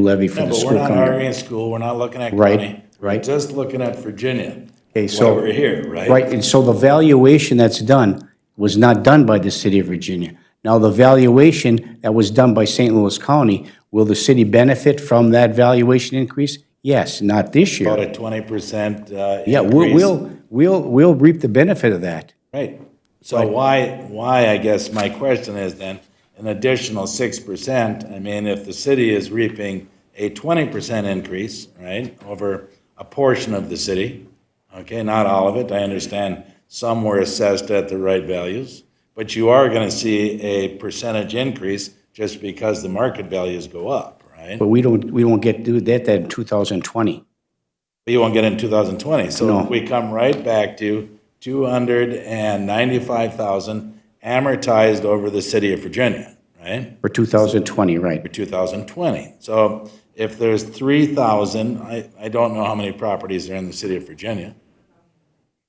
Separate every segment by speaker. Speaker 1: levy for
Speaker 2: No,
Speaker 1: the
Speaker 2: but
Speaker 1: school
Speaker 2: we're not
Speaker 1: coming.
Speaker 2: arguing school, we're not looking at
Speaker 1: Right,
Speaker 2: county.
Speaker 1: right.
Speaker 2: We're Just looking at Virginia.
Speaker 1: Okay, so-
Speaker 2: Why we're here, right?
Speaker 1: Right, and so the valuation that's done was not done by the city of Virginia. Now, the valuation that was done by St. Louis County, will the city benefit from that valuation increase? Yes, not this
Speaker 2: About
Speaker 1: year.
Speaker 2: a twenty percent, uh.
Speaker 1: Yeah, we'll,
Speaker 2: increase.
Speaker 1: we'll, we'll we'll reap the benefit of that.
Speaker 2: Right. So why, why, I guess my question is then, an additional six percent, I mean, if the city is reaping a twenty percent increase, right, over a portion of the city, okay, not all of it, I understand some were assessed at the right values, but you are gonna see a percentage increase just because the market values go up, right?
Speaker 1: But we don't, we won't get, do that, that in 2020.
Speaker 2: But you won't get it in 2020. So
Speaker 1: No.
Speaker 2: we come right back to 295,000 amortized over the city of Virginia, right?
Speaker 1: For 2020, right.
Speaker 2: For 2020. So if there's 3,000, I, I don't know how many properties are in the city of Virginia,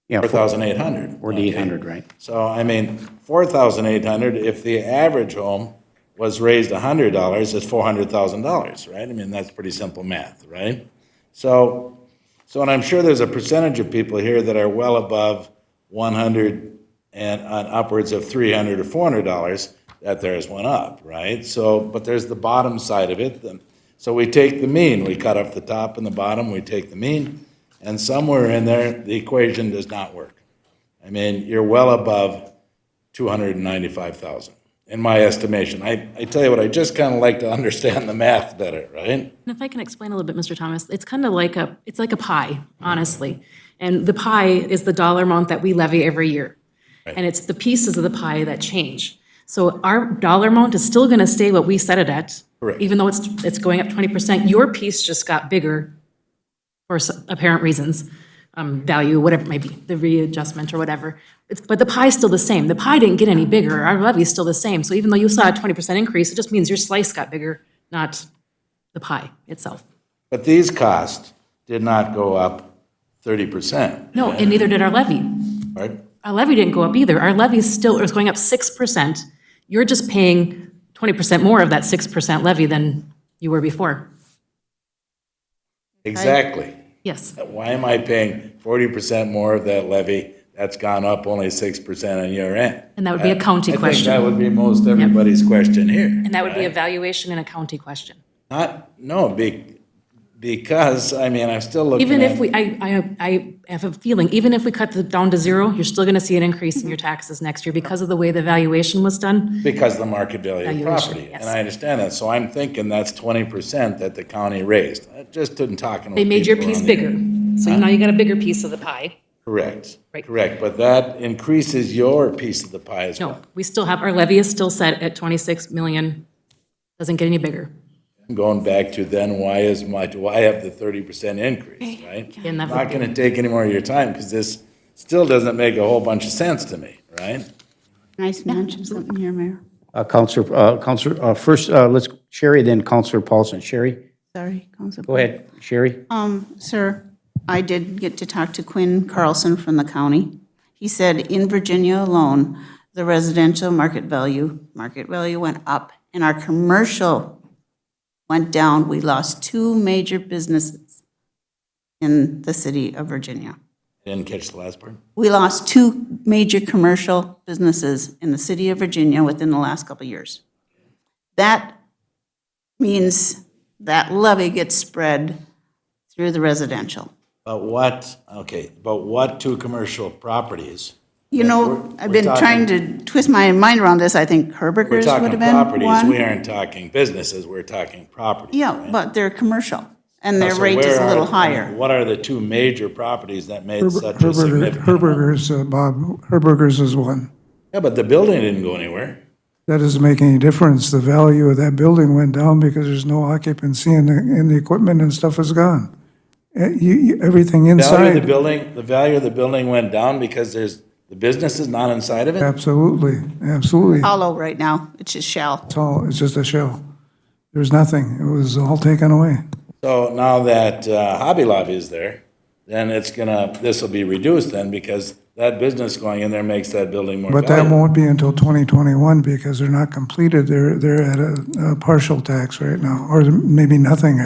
Speaker 1: Yeah,
Speaker 2: 4,800.
Speaker 1: 4,800, right.
Speaker 2: So, I mean, 4,800, if the average home was raised $100, it's $400,000, right? I mean, that's pretty simple math, right? So, so, and I'm sure there's a percentage of people here that are well above 100 and on upwards of 300 or 400 dollars that theirs went up, right? So, but there's the bottom side of it. then. So we take the mean, we cut off the top and the bottom, we take the mean, and somewhere in there, the equation does not work. I mean, you're well above 295,000, in my estimation. I, I tell you what, I just kind of like to understand the math better, right?
Speaker 3: And if I can explain a little bit, Mr. Thomas, it's kind of like a, it's like a pie, honestly. And the pie is the dollar amount that we levy every year. And it's the pieces of the pie that change. So our dollar amount is still going to stay what we set it at.
Speaker 2: Correct.
Speaker 3: Even though it's, it's going up 20%, your piece just got bigger for s- apparent reasons, um, value, whatever it might be, the readjustment or whatever. It's, but the pie's still the same. The pie didn't get any bigger. Our levy's still the same. So even though you saw a 20% increase, it just means your slice got bigger, not the pie itself.
Speaker 2: But these costs did not go up 30%,
Speaker 3: No, and neither did our levy.
Speaker 2: right?
Speaker 3: Our levy didn't go up either. Our levy still is going up 6%. You're just paying 20% more of that 6% levy than you were before.
Speaker 2: Exactly.
Speaker 3: Yes.
Speaker 2: Why am I paying 40% more of that levy that's gone up only 6% on your end?
Speaker 3: And that would be a county
Speaker 2: I think that
Speaker 3: question.
Speaker 2: would be most everybody's question here.
Speaker 3: And that would be a valuation and a county question.
Speaker 2: Not, no, be, because, I mean, I'm still looking at.
Speaker 3: Even if we, I, I, I have a feeling, even if we cut it down to zero, you're still going to see an increase in your taxes next year because of the way the valuation was done.
Speaker 2: Because of the market value of the
Speaker 3: Valuation,
Speaker 2: property. And
Speaker 3: yes.
Speaker 2: I understand that, so I'm thinking that's twenty percent that the county raised. I just didn't talk.
Speaker 3: They made your piece bigger. So now you got a bigger piece of the pie.
Speaker 2: Correct,
Speaker 3: Right.
Speaker 2: correct, but that increases your piece of the pie as
Speaker 3: No,
Speaker 2: well.
Speaker 3: we still have, our levy is still set at 26 million. Doesn't get any bigger.
Speaker 2: Going back to then, why is my, do I have the thirty percent increase, right?
Speaker 3: And that would
Speaker 2: Not gonna take any more of your time, because this still doesn't make a whole bunch of sense to me, right?
Speaker 4: Can I just mention something here, Mayor?
Speaker 1: Uh, Counselor, uh, Counselor, uh, first, uh, let's, Sherry, then Counselor Paulson. Sherry,
Speaker 4: Sorry, Council.
Speaker 1: go ahead. Sherry?
Speaker 4: Um, Sir, I did get to talk to Quinn Carlson from the county. He said in Virginia alone, the residential market value, market value went up and our commercial went down. We lost two major businesses in the city of Virginia.
Speaker 2: Didn't catch the last part?
Speaker 4: We lost two major commercial businesses in the city of Virginia within the last couple of years. That means that levy gets spread through the residential.
Speaker 2: But what, okay, but what two commercial properties?
Speaker 4: You know, I've
Speaker 2: we're
Speaker 4: been trying to twist my mind around this. I think
Speaker 2: We're
Speaker 4: Herberger's would
Speaker 2: talking
Speaker 4: have been
Speaker 2: properties, we
Speaker 4: one.
Speaker 2: aren't talking businesses, we're talking properties.
Speaker 4: Yeah, but they're commercial and their
Speaker 2: So
Speaker 4: rate is
Speaker 2: where
Speaker 4: a
Speaker 2: are- uh,
Speaker 4: little higher.
Speaker 2: What are the two major properties that made such a
Speaker 5: Herberger,
Speaker 2: significant?
Speaker 5: Herberger's, uh, Bob, Herberger's is one.
Speaker 2: Yeah, but the building didn't go anywhere.
Speaker 5: That doesn't make any difference. The value of that building went down because there's no occupancy and the, and the equipment and stuff is gone. Uh, you- you- everything
Speaker 2: Value of the
Speaker 5: inside,
Speaker 2: building, the value of the building went down because there's, the business is not inside of it?
Speaker 5: absolutely, absolutely.
Speaker 4: Hollow right now, it's just shell.
Speaker 5: It's all, it's just a shell. There's nothing. It was all taken away.
Speaker 2: So now that uh, Hobby Lobby is there, then it's gonna, this will be reduced then because that business going in there makes that building more
Speaker 5: But that
Speaker 2: valuable.
Speaker 5: won't be until 2021 because they're not completed. They're, they're at a, a partial tax right now, or maybe nothing